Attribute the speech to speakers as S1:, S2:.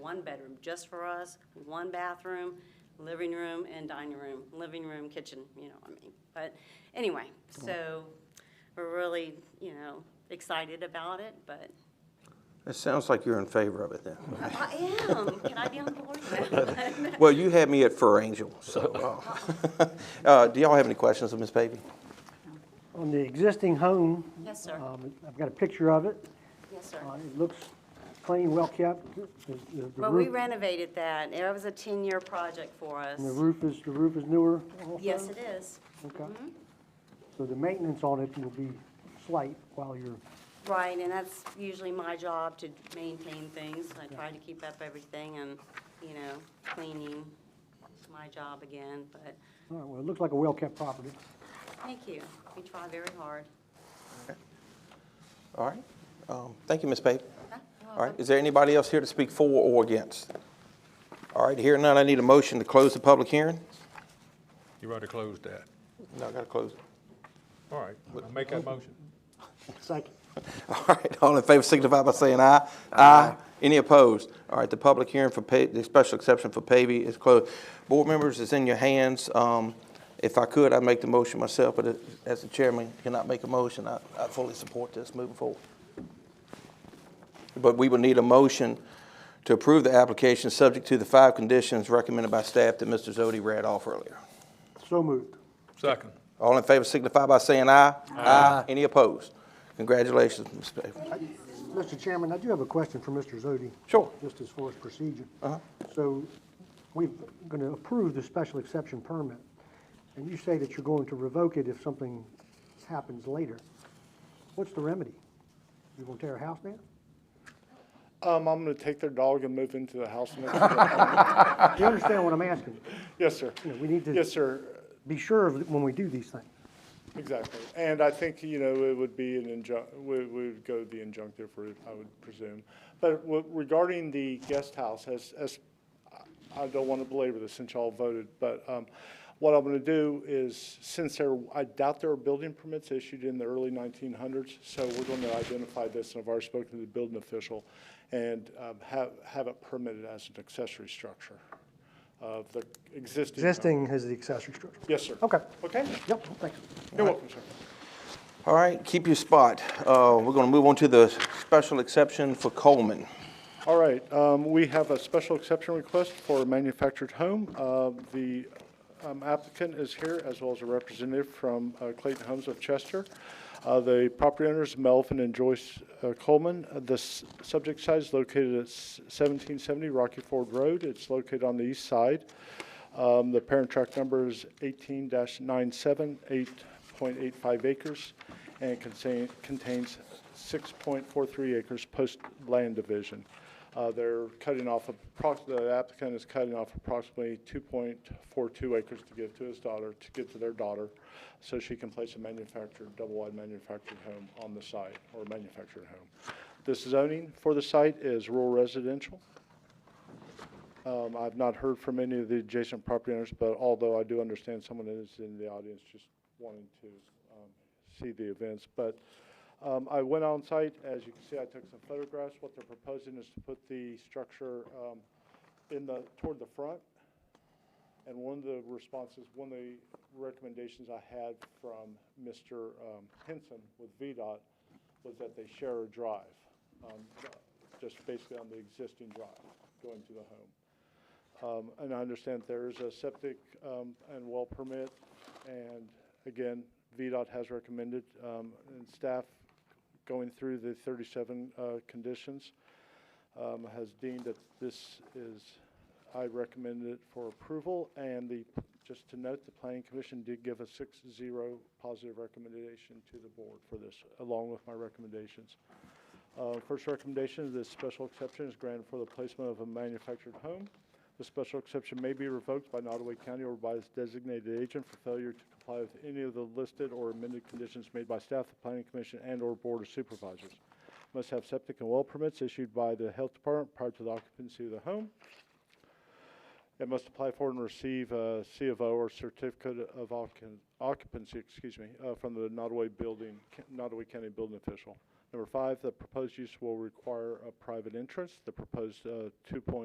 S1: one bedroom just for us, one bathroom, living room and dining room, living room, kitchen, you know what I mean? But anyway, so we're really, you know, excited about it, but
S2: It sounds like you're in favor of it then.
S1: I am, can I be on the board now?
S2: Well, you had me at Fur Angel, so. uh, uh, Do y'all have any questions of Ms. Pavey?
S3: On the existing home,
S1: Yes, sir,
S3: um, I've got a picture of it.
S1: yes, sir.
S3: Uh, It looks clean, well-kept. The- the- the
S1: Well, we
S3: roof-
S1: renovated that, it was a ten-year project for us.
S3: The roof is, the roof is newer also?
S1: Yes, it is, Mm-hmm.
S3: Okay. So the maintenance on it will be slight while you're,
S1: right, and that's usually my job to maintain things, I try to keep up everything and, you know, cleaning, it's my job again, but,
S3: all right, well, it looks like a well-kept property.
S1: thank you, we try very hard.
S2: All right. Um, Thank you, Ms. Pavey.
S1: Huh? You're
S2: All right,
S1: welcome.
S2: is there anybody else here to speak for or against? All right, hearing none, I need a motion to close the public hearing.
S4: You already closed that.
S2: No, I gotta close it.
S4: All right, I'll make that motion.
S3: Second.
S2: All right, all in favor signify by saying aye. Aye. Any opposed? All right, the public hearing for pa, the special exception for Pavy is closed. Board members, it's in your hands. Um, If I could, I'd make the motion myself, but as the chairman cannot make a motion, I, I fully support this moving forward. But we will need a motion to approve the application, subject to the five conditions recommended by staff that Mr. Zodi read off earlier.
S3: So moved.
S4: Second.
S2: All in favor signify by saying aye. Aye. Any opposed? Congratulations, Ms. Pavy.
S3: Mr. Chairman, I do have a question for Mr. Zodi.
S2: Sure.
S3: Just as far as procedure. So we're going to approve the special exception permit, and you say that you're going to revoke it if something happens later. What's the remedy? You going to tear a house down?
S5: Um, I'm gonna take their dog and move into the house next door.
S3: Do you understand what I'm asking?
S5: Yes, sir.
S3: You know, we need to-
S5: Yes, sir,
S3: Be sure of it when we do these things.
S5: exactly. And I think, you know, it would be an injun, we, we would go the injunctive route, I would presume. But w- regarding the guest house, as, as, I- I don't wanna belabor this since y'all voted, but, um, what I'm gonna do is, since there, I doubt there were building permits issued in the early nineteen hundreds, so we're gonna identify this, and I've already spoken to the building official, and, um, have, have it permitted as an accessory structure of the existing.
S3: Existing has the accessory structure.
S5: Yes, sir.
S3: Okay.
S5: Okay?
S3: Yep, thanks.
S5: You're welcome, sir.
S2: All right, keep your spot. Uh, We're going to move on to the special exception for Coleman.
S5: All right, um, we have a special exception request for a manufactured home. Uh, The um, applicant is here, as well as a representative from uh, Clayton Homes of Chester. Uh, The property owners, Melvin and Joyce uh, Coleman. Uh, The s- subject site is located at s- 1770 Rocky Ford Road. It's located on the east side. Um, The parent tract number is 18-97, 8.85 acres, and contain- contains 6.43 acres post-land division. Uh, They're cutting off, approx- the applicant is cutting off approximately 2.42 acres to give to his daughter, to give to their daughter, so she can place a manufactured, double-wide manufactured home on the site, or manufactured home. This zoning for the site is rural residential. Um, I've not heard from any of the adjacent property owners, but although I do understand someone is in the audience just wanting to um, see the events. But um, I went on site, as you can see, I took some photographs. What they're proposing is to put the structure um, in the, toward the front. And one of the responses, one of the recommendations I had from Mr. um, Henson with VDOT was that they share a drive, um, just basically on the existing drive going to the home. Um, And I understand there is a septic um, and well permit, and again, VDOT has recommended, um, and staff going through the 37 uh, conditions um, has deemed that this is, I recommend it for approval, and the, just to note, the planning commission did give a 6-0 positive recommendation to the board for this, along with my recommendations. Uh, First recommendation, is this special exception is granted for the placement of a manufactured home. The special exception may be revoked by Nottaway County or by its designated agent for failure to comply with any of the listed or amended conditions made by staff, the planning commission, and/or board of supervisors. Must have septic and well permits issued by the health department prior to the occupancy of the home. It must apply for and receive a C of O or certificate of occu- occupancy, excuse me, uh, from the Nottaway Building, Nottaway County Building Official. Number five, the proposed use will require a private entrance. The proposed uh, 2.0